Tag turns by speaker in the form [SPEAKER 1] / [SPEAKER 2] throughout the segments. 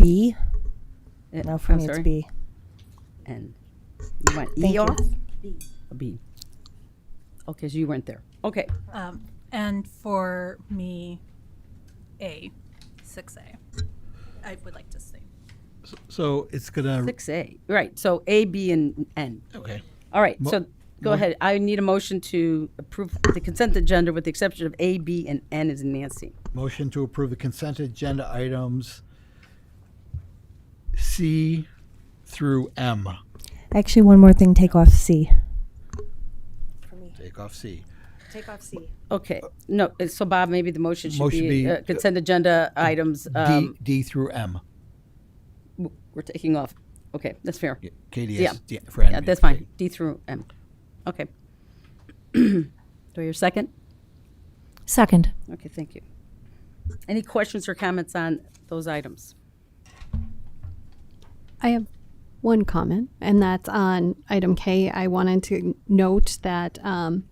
[SPEAKER 1] B?
[SPEAKER 2] Uh,
[SPEAKER 1] No, for
[SPEAKER 2] I'm
[SPEAKER 1] me it's
[SPEAKER 2] sorry.
[SPEAKER 1] B.
[SPEAKER 2] And you want
[SPEAKER 1] Thank
[SPEAKER 2] E
[SPEAKER 1] you.
[SPEAKER 2] off? A B. Okay, so you weren't there. Okay,
[SPEAKER 3] Um, and for me, A, six A. I would like to see.
[SPEAKER 4] So it's gonna,
[SPEAKER 2] six A, right, so A, B, and N.
[SPEAKER 4] okay.
[SPEAKER 2] All right,
[SPEAKER 4] Mo-
[SPEAKER 2] so go ahead. I need a motion to approve the consent agenda with the exception of A, B, and N is Nancy.
[SPEAKER 4] Motion to approve the consent agenda items C through M.
[SPEAKER 1] Actually, one more thing, take off C.
[SPEAKER 4] Take off C.
[SPEAKER 1] Take off C.
[SPEAKER 2] Okay, no, uh, so Bob, maybe the motion should
[SPEAKER 4] Motion
[SPEAKER 2] be
[SPEAKER 4] be,
[SPEAKER 2] uh,
[SPEAKER 4] uh,
[SPEAKER 2] consent agenda items,
[SPEAKER 4] D,
[SPEAKER 2] um,
[SPEAKER 4] D through M.
[SPEAKER 2] w- we're taking off. Okay, that's fair.
[SPEAKER 4] Yeah, Katie
[SPEAKER 2] Yeah.
[SPEAKER 4] is, yeah, for N.
[SPEAKER 2] Yeah, that's fine. D through M. Okay. Do I hear a second?
[SPEAKER 5] Second.
[SPEAKER 2] Okay, thank you. Any questions or comments on those items?
[SPEAKER 6] I have one comment, and that's on item K. I wanted to note that um,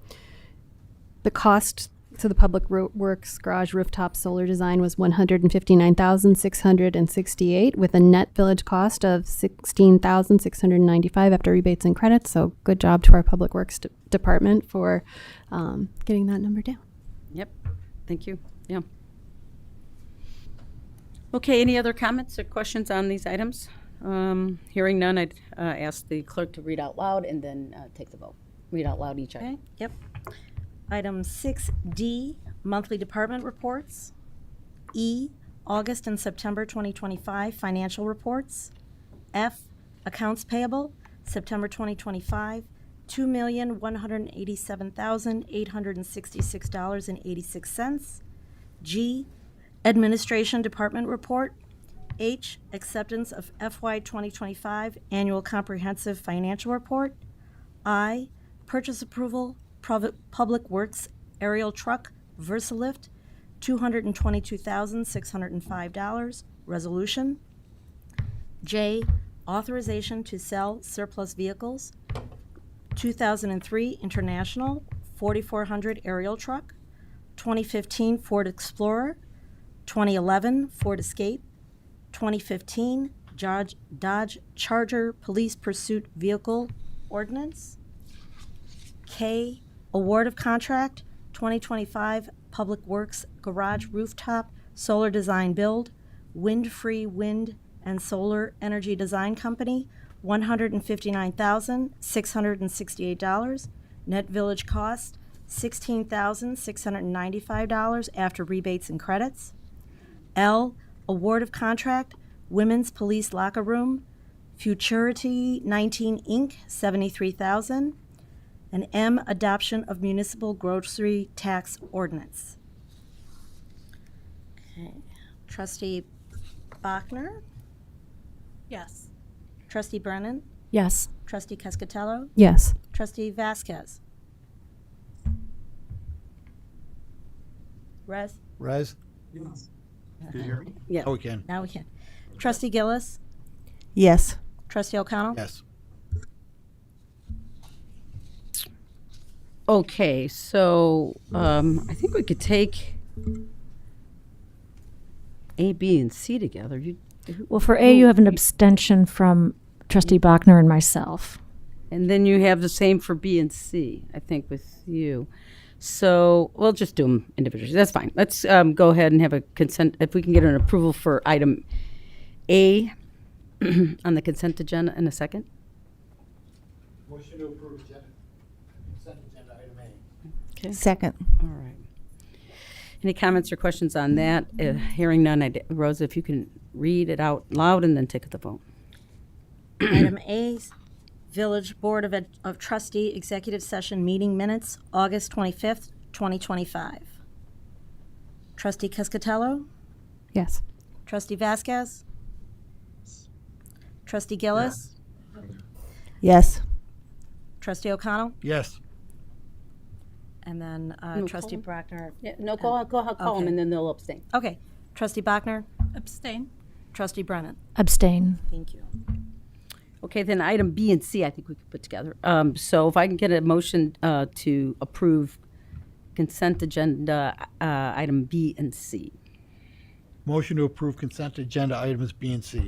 [SPEAKER 6] the cost to the public ro- works garage rooftop solar design was one hundred and fifty nine thousand six hundred and sixty eight, with a net village cost of sixteen thousand six hundred ninety five after rebates and credits. So, good job to our public works de- department for um, getting that number down.
[SPEAKER 2] Yep, thank you, yeah. Okay, any other comments or questions on these items? Um, Hearing none, I'd uh, ask the clerk to read out loud and then uh, take the vote. Read out loud each item.
[SPEAKER 7] Okay, yep. Item six D, monthly department reports. E, August and September twenty twenty-five financial reports. F, accounts payable, September twenty twenty-five, two million, one hundred and eighty-seven thousand, eight hundred and sixty-six dollars and eighty-six cents. G, administration department report. H, acceptance of FY twenty twenty-five annual comprehensive financial report. I, purchase approval, prov- Public Works aerial truck, Versalift, $222,605, resolution. J, authorization to sell surplus vehicles, 2003 International, 4400 aerial truck, 2015 Ford Explorer, 2011 Ford Escape, 2015 Dodge, Dodge Charger Police Pursuit Vehicle Ordinance. K, award of contract, 2025 Public Works Garage Rooftop Solar Design Build, Wind Free Wind and Solar Energy Design Company, $159,668. Net village cost, $16,695 after rebates and credits. L, award of contract, Women's Police Locker Room, Futurity 19 Inc., 73,000. And M, adoption of municipal grocery tax ordinance. Okay. Trustee Bachner,
[SPEAKER 3] Yes.
[SPEAKER 7] trustee Brennan,
[SPEAKER 5] Yes.
[SPEAKER 7] trustee Cascatello,
[SPEAKER 6] Yes.
[SPEAKER 7] trustee Vasquez. Res,
[SPEAKER 4] Rez?
[SPEAKER 2] Yeah.
[SPEAKER 4] Oh, we can,
[SPEAKER 7] now we can. Trustee Gillis,
[SPEAKER 1] Yes.
[SPEAKER 7] trustee O'Connell.
[SPEAKER 4] yes.
[SPEAKER 2] Okay, so um, I think we could take A, B, and C together. You-
[SPEAKER 5] Well, for A, you have an abstention from trustee Bachner and myself.
[SPEAKER 2] And then you have the same for B and C, I think, with you. So we'll just do them individually. That's fine. Let's um, go ahead and have a consent, if we can get an approval for item A on the consent agenda in a second.
[SPEAKER 4] Motion to approve agenda, consent agenda item A.
[SPEAKER 1] Second.
[SPEAKER 2] All right. Any comments or questions on that? Uh, Hearing none, I'd- Rosa, if you can read it out loud and then take the vote.
[SPEAKER 7] Item A, Village Board of Ed- of Trustee Executive Session Meeting Minutes, August 25th, 2025. Trustee Cascatello,
[SPEAKER 6] Yes.
[SPEAKER 7] trustee Vasquez, trustee Gillis,
[SPEAKER 1] Yes.
[SPEAKER 7] trustee O'Connell,
[SPEAKER 4] Yes.
[SPEAKER 7] and then uh,
[SPEAKER 2] No,
[SPEAKER 7] trustee
[SPEAKER 2] call
[SPEAKER 7] Brockner.
[SPEAKER 2] No, go, go, call them and then they'll abstain.
[SPEAKER 7] Okay, trustee Bachner,
[SPEAKER 3] Abstain.
[SPEAKER 7] trustee Brennan.
[SPEAKER 5] Abstain.
[SPEAKER 7] Thank you.
[SPEAKER 2] Okay, then item B and C, I think we could put together. Um, So if I can get a motion uh, to approve consent agenda uh, item B and C.
[SPEAKER 4] Motion to approve consent agenda items B and C.